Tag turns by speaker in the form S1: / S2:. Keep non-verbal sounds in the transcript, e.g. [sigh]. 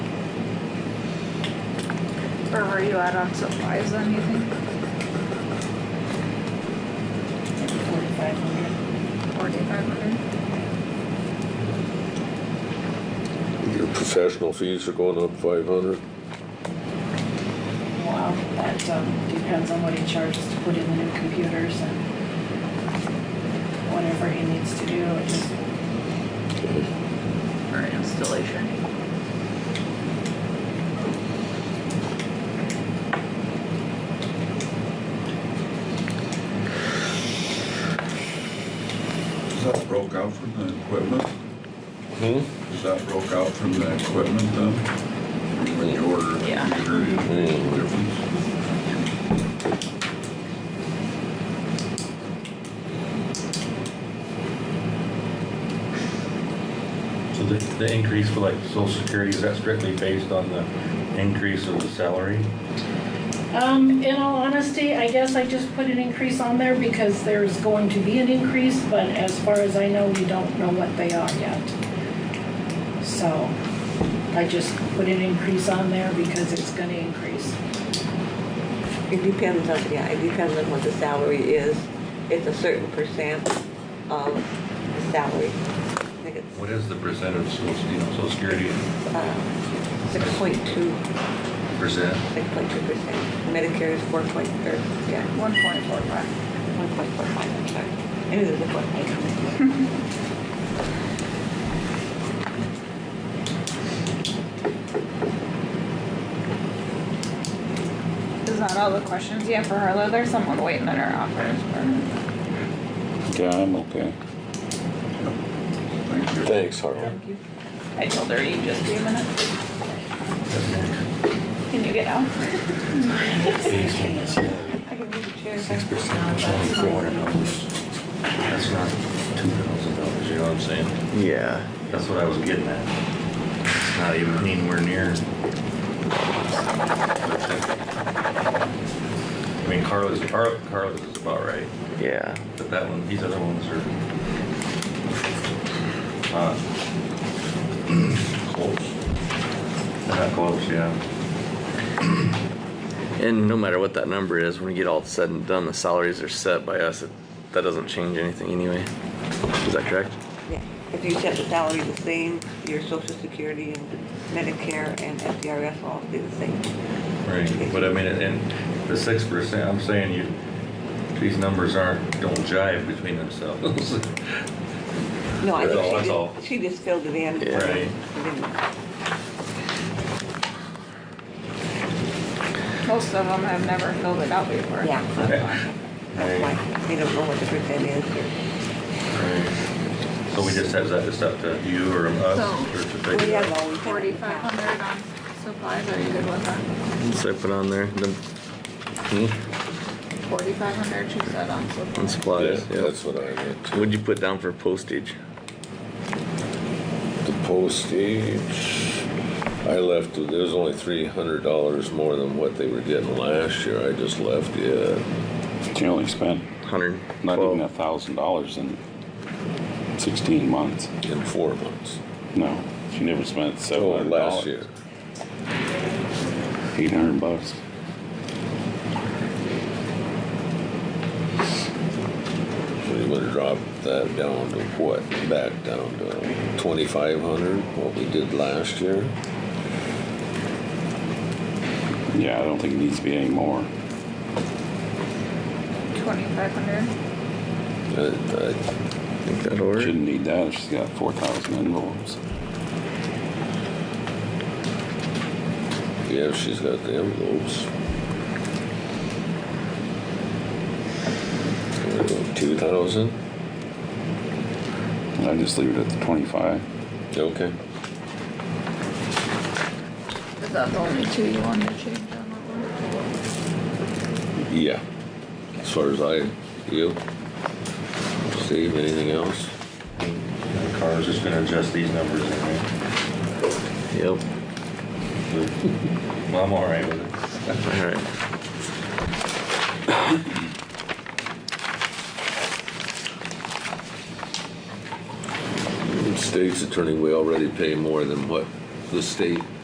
S1: Or were you at on supplies then, you think?
S2: Forty-five hundred.
S1: Forty-five hundred?
S3: Your professional fees are going up five hundred.
S2: Wow, that um, depends on what he charges to put in the new computers and whatever he needs to do. It just-
S1: For installation.
S4: Is that broke out from the equipment?
S3: Hmm?
S4: Is that broke out from the equipment then? When you order a
S1: Yeah.
S4: computer, you
S3: Hmm.
S4: difference?
S5: So the, the increase for like social security, is that strictly based on the increase of the salary?
S2: Um, in all honesty, I guess I just put an increase on there because there's going to be an increase, but as far as I know, we don't know what they are yet. So I just put an increase on there because it's gonna increase.
S6: It depends on, yeah, it depends on what the salary is. It's a certain percent of the salary. I think it's
S5: What is the percent of social, you know, social security
S6: six point two,
S5: percent?
S6: six point two percent. Medicare is four point, or, yeah,
S1: One point four five.
S6: one point four five, I'm sorry. I knew there was a four point.
S1: Is that all the questions you have for Harlow? There's someone waiting in her office for her.
S7: Yeah, I'm okay.
S4: Thank you.
S3: Thanks, Harold.
S6: Thank you.
S1: I told her you just be a minute. Can you get out? I can move the chair.
S5: Six percent, that's only four hundred dollars. That's not two thousand dollars, you know what I'm saying?
S8: Yeah.
S5: That's what I was getting at. It's not even anywhere near. I mean, Carlos, Car- Carlos is about right,
S8: Yeah.
S5: but that one, these other ones are. uh, not Close. They're Not close, yeah.
S8: And no matter what that number is, when we get all said and done, the salaries are set by us. It- That doesn't change anything anyway. Is that correct?
S6: Yeah. If you set the salary the same, your social security and Medicare and FDRS all stay the same.
S5: Right, but I mean, and the six percent, I'm saying you, these numbers aren't, don't jive between themselves. [laughs]
S6: No, I
S5: That's all, that's all.
S6: think she just, she just filled it in.
S8: Yeah.
S5: Right.
S6: Didn't-
S1: Most of them have never filled it out before.
S6: Yeah. That's
S5: Right.
S6: why, they don't know what the percent is or.
S5: So we just have that, it's up to you or us or to
S1: So,
S5: figure it out.
S6: always
S1: Forty-five hundred on supplies, are you good with that?
S8: So I put on there, the, hmm,
S1: Forty-five hundred, she said on supplies.
S3: Oh, Yeah,
S8: on supplies, yeah.
S3: that's what I meant.
S8: What'd you put down for postage?
S3: The postage, I left, it was only three hundred dollars more than what they were getting last year. I just left it.
S7: She only spent
S8: Hundred
S7: not even a
S8: twelve?
S7: thousand dollars in sixteen months.
S3: in four months.
S7: No, she never spent
S3: Oh,
S7: seven hundred
S3: last year.
S7: Eight hundred bucks.
S3: So you would have dropped that down to what? Back down to twenty-five hundred, what we did last year.
S7: Yeah, I don't think it needs to be any more.
S1: Twenty-five hundred,
S3: Uh, I-
S8: I think that'll work.
S7: Shouldn't need that if she's got four thousand envelopes.
S3: Yeah, she's got the envelopes. Two thousand?
S7: I just leave it at the twenty-five.
S3: Okay.
S1: is that the only two you wanted to change on that one?
S3: Yeah. As far as I, you, Steve, anything else?
S5: And Carlos is gonna adjust these numbers anyway.
S8: Yep,
S5: Well, I'm all right with it.
S8: alright.
S3: State's attorney, we already pay more than what the state